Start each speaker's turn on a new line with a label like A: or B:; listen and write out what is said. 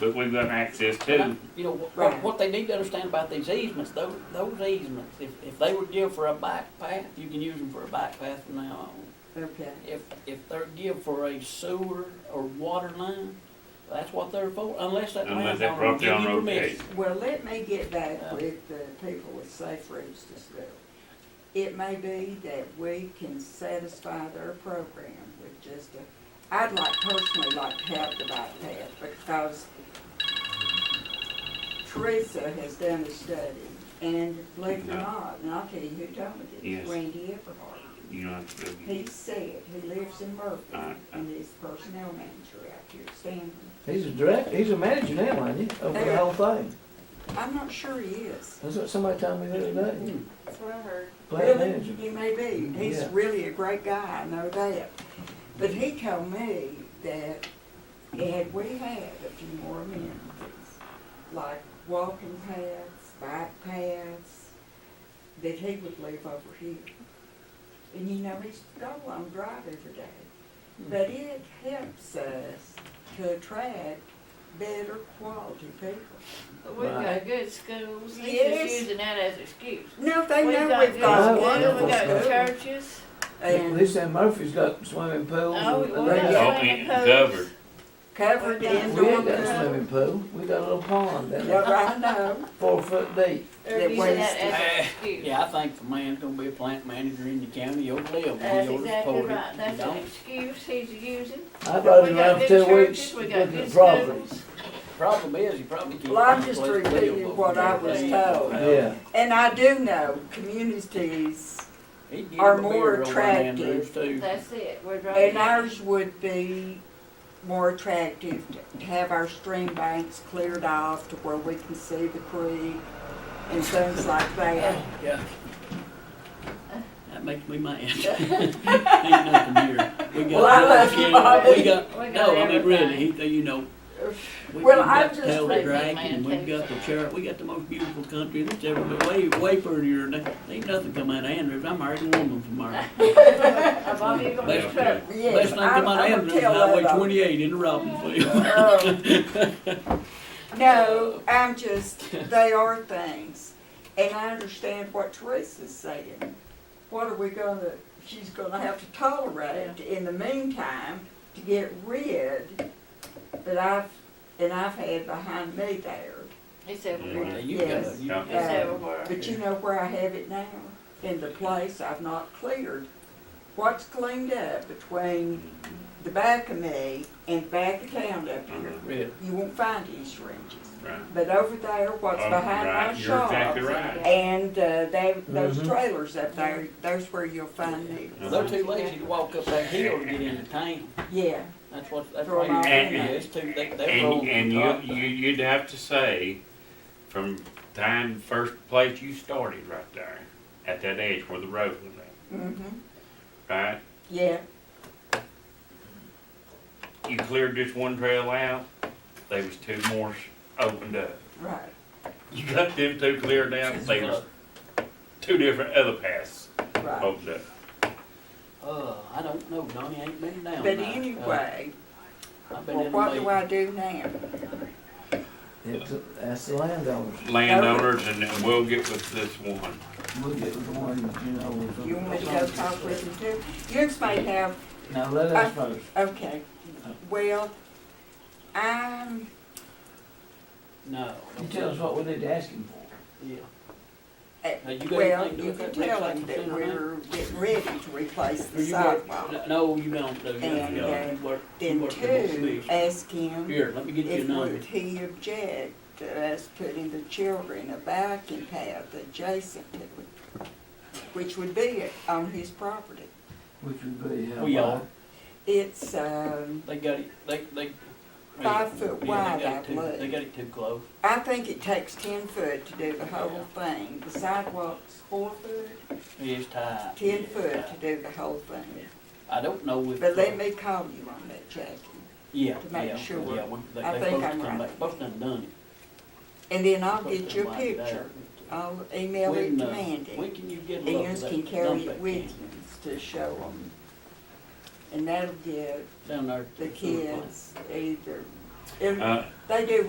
A: but we've got access to.
B: You know, what-
C: Right.
B: what, what they need to understand about these easements, those, those easements, if, if they were give for a bike path, you can use them for a bike path from now on.
C: Okay,
B: If, if they're give for a sewer or water line, that's what they're for, unless that
A: Unless that
B: landowner
A: property
B: give you
A: owner
B: permission.
C: well, let me get back
B: Yeah.
C: with the people with safe routes to school. It may be that we can satisfy their program with just a, I'd like personally like to have the bike path because Teresa has done a study and believe it or
A: Yeah.
C: not, and I'll tell you who told me
A: Yes.
C: this, Randy Everhart.
A: You know, it's-
C: He said, he lives in Murphy
A: Alright.
C: and he's personnel manager out here at Stanford.
D: He's a direct, he's a manager now, ain't he, of the whole thing?
C: I'm not sure he is.
D: That's what somebody told me the other day,
E: That's what I heard.
D: plant
C: Really?
D: manager.
C: He may be. He's
D: Yeah.
C: really a great guy, I know that. But he told me that had we had a few more amenities, like walking paths, bike paths, that he would live over here. And you know, he's got a long drive every day. But it helps us to attract better quality people.
E: But we've
D: Right.
E: got good schools. He's
C: Yes.
E: just using that as excuse.
C: No, they
E: we've
C: know
E: got
C: we've got
D: a
E: good schools.
D: wonderful
E: We've got
D: school.
C: good.
E: churches.
C: And
D: This and Murphy's got swimming pools. and-
E: Oh, we-
D: and
E: we're
D: they
E: not
D: got-
A: Open and
E: swimming pools.
A: covered.
C: covered
E: We ain't
D: We
C: indoor.
D: ain't got a
C: pool.
D: swimming pool, we got a little pond down
C: Yeah,
D: there,
C: right, I know.
D: four foot deep.
E: They're
C: That
E: using that
C: waste.
E: as an excuse.
B: Yeah, I think if a man's gonna be a plant manager in the county, he'll live, he'll
E: That's
B: just
E: exactly
B: support it.
E: right.
B: You
E: That's an
B: don't-
E: excuse he's using.
D: I rode
E: We
D: it
E: got
D: around
E: good
D: for two weeks
E: churches, we
D: looking at
E: got
D: the
E: good schools.
D: property.
B: Problem is, he probably can't.
C: Well, I'm
B: find a
C: just
B: place to live
C: repeating
B: over
C: what
B: there.
C: I was told.
D: Yeah,
C: And I do know communities,
B: He'd give
C: Are
B: him a
C: more
B: beer over in Andrews,
C: attractive.
B: too.
E: That's it. We're driving.
C: and ours would be more attractive to- to have our stream banks cleared off to where we can see the creek and things like that.
B: Yeah. That makes me mad. Ain't nothing here. We got.
C: Well, I love you, Bobby.
B: We got,
E: We got
B: no, I mean, really,
E: everything.
B: he, you know. we-
C: Well,
B: we've got
C: I'm
B: the
C: just
B: Tail of the
E: thinking,
B: dragon,
E: man,
B: we've got the chariot, we got the most beautiful country that's ever been, way, way prettier than, that. ain't nothing come out of Andrews, I married a woman from Marvin.
E: I'm on your
A: Yeah,
E: truck.
A: yeah.
B: Best
C: Yes,
B: thing
C: I'm,
B: come out of
C: I'm
B: Andrews,
C: gonna
B: is
C: tell
B: Highway
C: that up.
B: twenty-eight in Robbinsville.
C: Um, No, I'm just, they are things. And I understand what Teresa's saying. What are we gonna, she's gonna have to tolerate in the meantime to get rid that I've, and I've had behind me there.
E: It's
B: Yeah,
E: everywhere.
B: You got,
C: Yes.
B: you
E: It's
C: Yeah.
E: everywhere.
C: But you know where I have it now? In the place I've not cleared. What's cleaned up between
A: Mm-hmm.
C: the back of me and back of town up here?
B: read.
C: You won't find any syringes.
A: Right.
C: But over there, what's
A: Oh,
C: behind
A: right.
C: my
A: You're
C: shop.
A: exactly right.
C: And uh, they, those
B: Mm-hmm.
D: Mhm.
C: trailers up there, those where you'll find
A: Uh-huh.
C: needles.
B: They're too lazy to walk up that hill to get into town,
C: Yeah,
B: that's what, that's
C: Throw
B: why
C: 'em
B: you're,
C: out.
B: yeah, it's too, they, they're
A: And,
B: rolling.
A: and you, you, you'd have to say, from time, first place you started right there, at that edge where the road was at,
C: mm-hmm,
A: right?
C: yeah,
A: You cleared this one trail out, there was two more s- opened up.
C: right.
A: You got them two cleared out, there was two different other paths
C: Right.
A: opened up.
B: Uh, I don't know, Donnie, I ain't been down
C: But
B: there. Uh,
C: anyway,
B: I've been
C: well,
B: in
C: what
B: the
C: do I do now?
D: it's, that's the landowners,
A: Landowners, and then we'll get with this one.
D: we'll get with the one, you know.
C: You want me to go talk with them too? You may have,
D: Now, let
C: I-
D: us first.
C: okay, well, I'm,
B: No.
D: You tell us what we need to ask him for.
B: Yeah.
C: Uh,
B: Now, you got
C: well,
B: anything to do
C: you
B: with
C: can
B: that
C: tell
B: tax like
C: them that
B: you said,
C: we're getting ready to replace
B: Or
C: the
B: you work-
C: sidewalk.
B: No, you don't do that.
C: And,
B: You
C: uh,
B: work- you
C: Then
B: work the whole
C: two,
B: list.
C: ask him.
B: Here, let me get you a
C: If
B: number.
C: would he object to us putting the children a biking path adjacent to it, which would be on his property?
D: Which would be how
B: We
D: wide?
B: are.
C: It's, um,
B: They got it, they, they.
C: Five foot
B: Yeah, they
C: wide,
B: got
C: I
B: it too-
C: believe.
B: They got it too close.
C: I think it takes ten foot to do the whole thing. The sidewalk's four foot,
B: It's tight.
C: ten
B: It's
C: foot to
B: tight.
C: do the whole thing.
B: I don't know if.
C: But
B: uh,
C: let me call you on that, Jackie.
B: Yeah,
C: to make
B: yeah,
C: sure.
B: yeah, we, they,
C: I
B: they supposed
C: think
B: to
C: I'm
B: come
C: right.
B: back, supposed to have done it.
C: And then I'll
B: Supposed to
C: get you a
B: have lined it up.
C: picture. I'll email it
B: When,
C: to
B: uh, When
C: Mandy.
B: can you get a
C: And
B: look at
C: yours
B: that
C: can carry
B: dump
C: it
B: that
C: with
B: can?
C: you to show them. And that'll give
B: Down there. to
C: the
B: sewer plant.
C: kids either, if
A: Uh,
C: they do